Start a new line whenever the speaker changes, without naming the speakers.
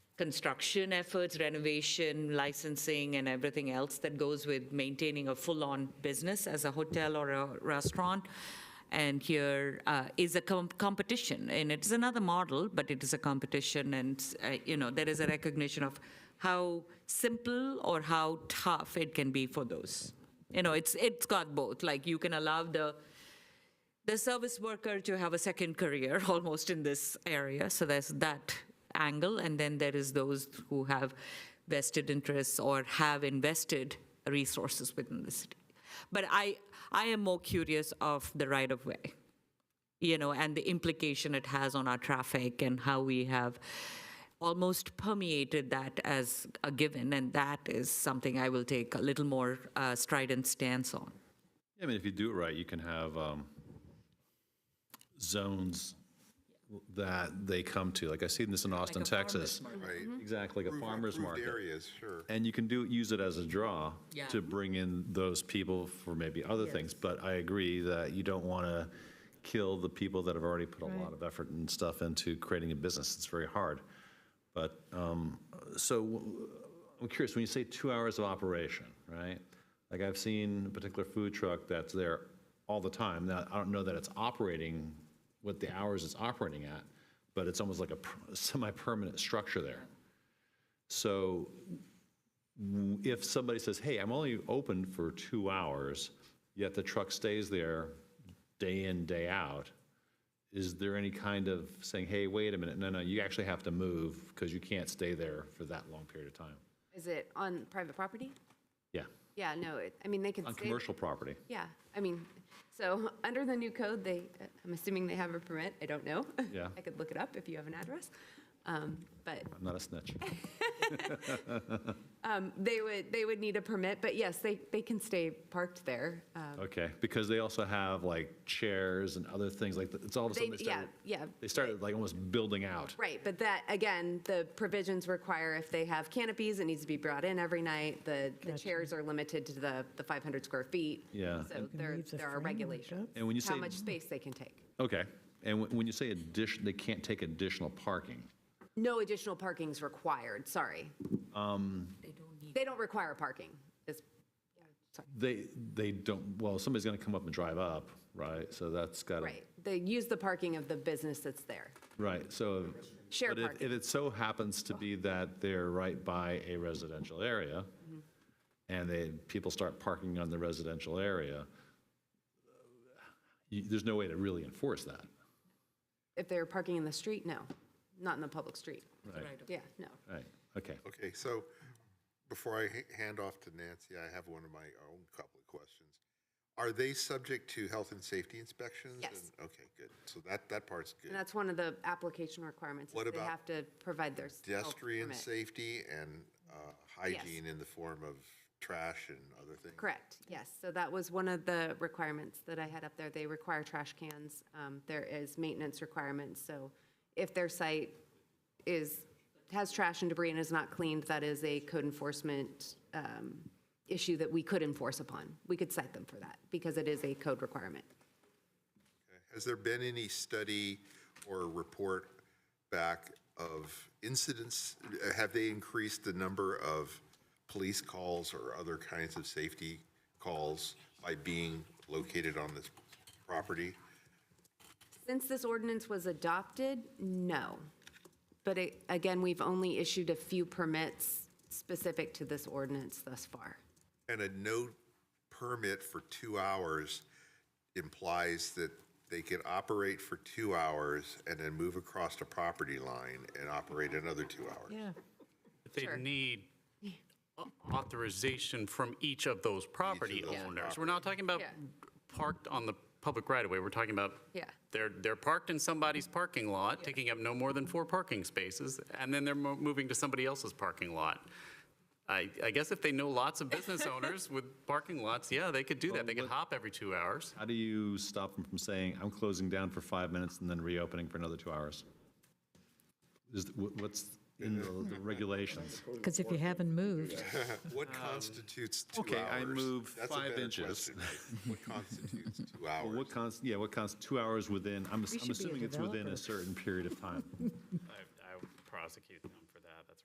construction efforts, renovation, licensing, and everything else that goes with maintaining a full-on business as a hotel or a restaurant. And here uh, is a com- competition, and it's another model, but it is a competition, and, uh, you know, there is a recognition of how simple or how tough it can be for those. You know, it's, it's got both, like, you can allow the, the service worker to have a second career almost in this area. So there's that angle. And then there is those who have vested interests or have invested resources within the city. But I, I am more curious of the right of way, you know, and the implication it has on our traffic and how we have almost permeated that as a given. And that is something I will take a little more uh, strident stance on.
I mean, if you do it right, you can have um, zones that they come to. Like I seen this in Austin, Texas.
Right.
Exactly, like a farmer's
Approved
market.
areas, sure.
And you can do, use it as a draw
Yeah.
to bring in those people for maybe other things. But I agree that you don't want to kill the people that have already put a lot of effort and stuff into creating a business. It's very hard. But, um, so w- I'm curious, when you say two hours of operation, right? Like I've seen a particular food truck that's there all the time. Now, I don't know that it's operating, what the hours it's operating at, but it's almost like a per- semi-permanent structure there. So if somebody says, hey, I'm only open for two hours, yet the truck stays there day in, day out, is there any kind of saying, hey, wait a minute, no, no, you actually have to move because you can't stay there for that long period of time?
Is it on private property?
Yeah,
Yeah, no, it- I mean, they can
on
stay-
commercial property.
Yeah, I mean, so under the new code, they, I'm assuming they have a permit, I don't know.
Yeah.
I could look it up if you have an address. Um, But
I'm not a snitch.
um, they would, they would need a permit, but yes, they, they can stay parked there. Um,
Okay, because they also have like chairs and other things like, that. it's all of a
They,
sudden they
yeah,
started,
yeah,
they started like almost building out.
right, but that, again, the provisions require if they have canopies, it needs to be brought in every night. The, the chairs are limited to the, the 500 square feet.
Yeah.
So there, there are regulations.
And when you
How
say-
much space they can take.
Okay, and when- when you say addition, they can't take additional parking.
No additional parking's required, sorry.
Um,
They don't require parking. It's-
They, they don't, well, somebody's going to come up and drive up, right? So that's got to.
Right, they use the parking of the business that's there.
Right, so.
Share
but if-
parking.
If it so happens to be that they're right by a residential area,
Mm-hmm.
and they, people start parking on the residential area, you- there's no way to really enforce that.
If they're parking in the street, no, not in the public street.
Right.
Yeah, no.
Right, okay.
Okay, so before I h- hand off to Nancy, I have one of my own couple of questions. Are they subject to health and safety inspections?
Yes.
And- Okay, good. So that, that part's
And
good.
that's one of the application requirements. is
What
They
about
have to provide their. self
Pedestrian
permit.
safety and uh, hygiene in the form of trash and other things?
Correct, yes. So that was one of the requirements that I had up there. They require trash cans. Um, There is maintenance requirements, so if their site is, has trash and debris and is not cleaned, that is a code enforcement um, issue that we could enforce upon. We could cite them for that, because it is a code requirement.
Has there been any study or report back of incidents? Have they increased the number of police calls or other kinds of safety calls by being located on this property?
Since this ordinance was adopted, no. But it- again, we've only issued a few permits specific to this ordinance thus far.
And a no permit for two hours implies that they can operate for two hours and then move across the property line and operate another two hours.
Yeah.
But They need au- authorization from each of those property
those
owners. We're not talking about
Yeah.
parked on the public right-of-way, we're talking about
Yeah. Mm-hmm.
they're, they're parked in somebody's parking lot, taking up no more than four parking spaces, and then they're mo- moving to somebody else's parking lot. I, I guess if they know lots of business owners with parking lots, yeah, they could do that, they could hop every two hours.
How do you stop them from saying, I'm closing down for five minutes and then reopening for another two hours? Is, wh- what's in the the regulations?
Because if you haven't moved,
What constitutes two hours?
Um, okay, I move
That's a
five
better
inches.
question, right? What constitutes two
Well,
hours?
What const, yeah, what const, two hours within, I'm ass- I'm
should be a
assuming it's within a
developer.
certain period of time.